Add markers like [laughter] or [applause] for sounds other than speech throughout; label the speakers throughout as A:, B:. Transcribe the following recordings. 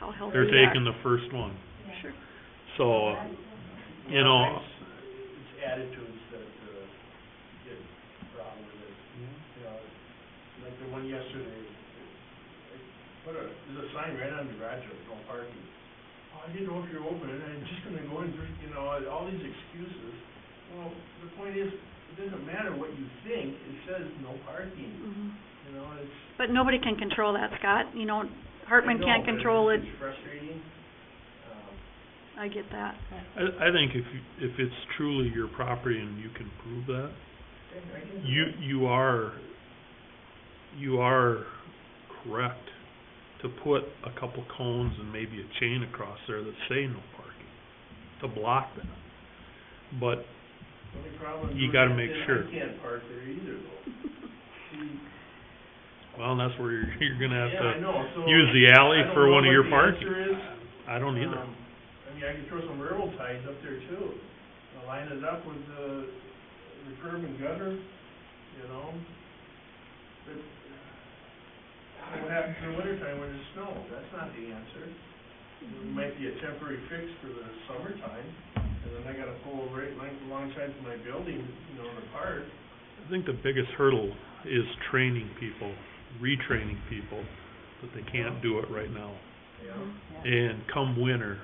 A: how healthy
B: They're
A: they are.
B: taking the first one,
A: Sure.
B: so, you know,
C: It's attitudes that, uh, get problem with it, you know, like the one yesterday, I put a, there's a sign right on the garage door, no parking. "Oh, I didn't know if you're open, and I'm just gonna go in, drink," you know, all these excuses. Well, the point is, it doesn't matter what you think, it says no parking,
A: Mhm.
C: you know, it's.
A: But nobody can control that, Scott, you know, Hartman
C: I know,
A: can't
C: but
A: control it,
C: It's frustrating, um,
A: I get
C: [laughs]
A: that.
B: I, I think if, you- if it's truly your property and you can prove that,
C: I can.
B: you, you are, you are correct to put a couple cones and maybe a chain across there that say no parking, to block that. But
C: Only problem
B: You
C: is
B: gotta
C: that
B: make
C: then
B: sure.
C: I can't park there either though. See,
B: Well, that's where you're, [laughs] you're gonna have
C: Yeah, I
B: to,
C: know, so.
B: use the alley
C: I don't
B: for
C: know
B: one of
C: what
B: your
C: the
B: parking.
C: answer is.
B: I don't either.
C: Um, I mean, I could throw some railroad ties up there too, Uh, line it up with the, the curb and gutter, you know? But, uh, what happens in the wintertime when there's snow, that's not the answer.
A: Mm-hmm.
C: It might be a temporary fix for the summertime, and then I gotta pull right length alongside of my building, you know, in the park.
B: I think the biggest hurdle is training people, retraining people, that they can't do it right now.
C: Yeah.
B: And come winter,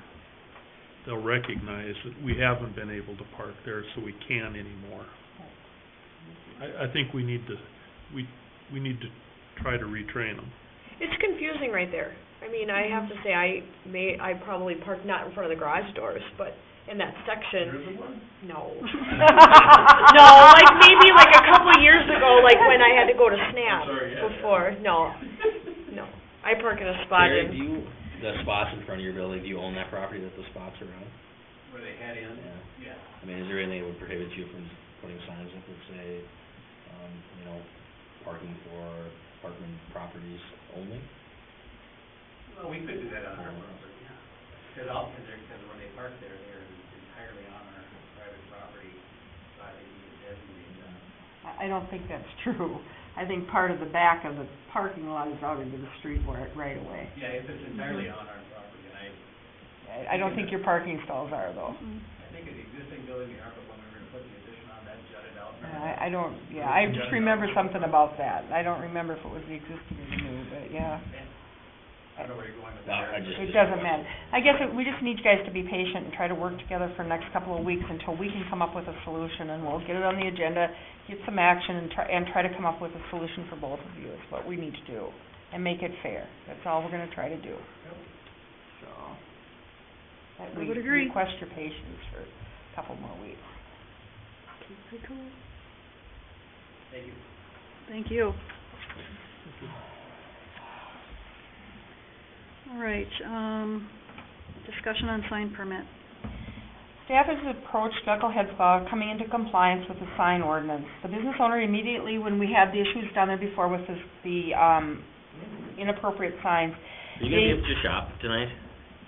B: they'll recognize that we haven't been able to park there, so we can anymore. I, I think we need to, we, we need to try to retrain them.
D: It's confusing right there. I mean, I have to say, I may, I probably parked not in front of the garage doors, but in that
C: There
D: section,
C: isn't one?
D: no. [laughs] No, like maybe like a couple years ago, like when I had to go to SNAP
C: sorry, yeah, yeah.
D: before, no, no. I park in a spot
E: Terry, do
D: in,
E: you, the spots in front of your building, do you own that property that the spots are on?
C: Where they had in?
E: Yeah.
C: Yeah.
E: I mean, is there anything that would prohibit you from putting signs up that say, um, you know, parking for apartment properties only?
F: Well, we could do that on our property, yeah. Because often they're, because when they park there, they're entirely on our private property, by the designated, uh,
G: I, I don't think that's [laughs] true. I think part of the back of the parking lot is out into the street where, right away.
F: yeah, if it's entirely on our property, and I,
G: Mm-hmm. I, I don't think your parking stalls are though.
A: Mm.
F: I think an existing building, the ARPA, when we were gonna put the addition on, that jutted out.
G: Uh, I, I don't, yeah, I just remember something about that. I don't remember if it was the existing or the new, but yeah.
F: I don't know where you're going with
E: Well, I
F: that.
E: just-
G: It doesn't matter. I guess that we just need you guys to be patient and try to work together for the next couple of weeks until we can come up with a solution and we'll get it on the agenda, get some action and try, and try to come up with a solution for both of you is what we need to do. And make it fair. That's all we're gonna try to do. So. that
A: I
G: we
A: would agree.
G: Request your patience for a couple more weeks.
A: Okay, pretty Mm-hmm. cool.
F: Thank you.
A: Thank you. All right, um, discussion on sign permit.
G: Staff has approached Knucklehead Spa coming into compliance with the sign ordinance. The business owner immediately, when we had the issues down there before with this, the, um, inappropriate signs,
E: Are you gonna be up at your shop tonight,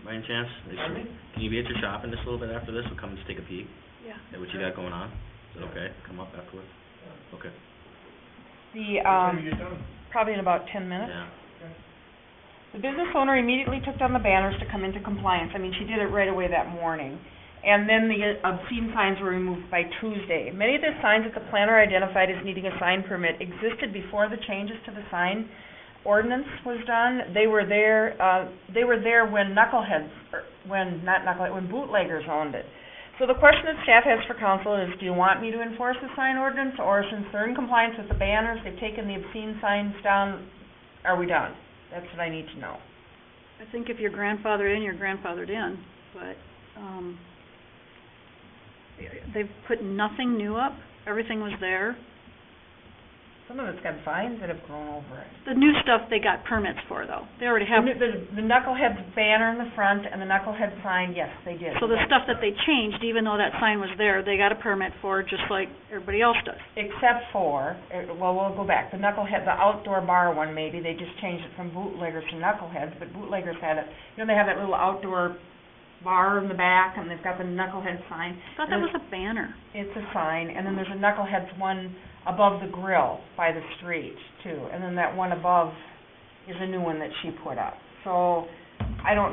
E: by any chance? Is-
C: Pardon me?
E: Can you be at your shop in just a little bit after this? We'll come and just take a peek
A: Yeah.
E: at what you got going on. Is that okay? Come up afterwards? Okay.
G: the,
C: What time do
G: um,
C: you get done?
G: probably in about ten minutes.
E: Yeah.
G: The business owner immediately took down the banners to come into compliance. I mean, she did it right away that morning. And then the obscene signs were removed by Tuesday. Many of the signs that the planner identified as needing a sign permit existed before the changes to the sign ordinance was done. They were there, uh, they were there when knuckleheads, er, when, not knucklehead, when bootleggers owned it. So the question that staff has for council is, do you want me to enforce the sign ordinance? Or since they're in compliance with the banners, they've taken the obscene signs down, are we done? That's what I need to know.
A: I think if you're grandfathered in, you're grandfathered in, but, um, they've put nothing new up, everything was there.
G: Some of it's got vines that have grown over it.
A: The new stuff they got permits for though, they already have,
G: The, the- the knucklehead banner in the front and the knucklehead sign, yes, they did.
A: so the stuff that they changed, even though that sign was there, they got a permit for, just like everybody else does.
G: Except for, eh, well, we'll go back, the knucklehead, the outdoor bar one maybe, they just changed it from bootleggers to knuckleheads, but bootleggers had it, you know, they have that little outdoor bar in the back and they've got the knucklehead sign.
A: I thought that was a banner.
G: It's a sign, and then there's a knuckleheads one above the grill by the street too, and then that one above is a new one that she put up. So, I don't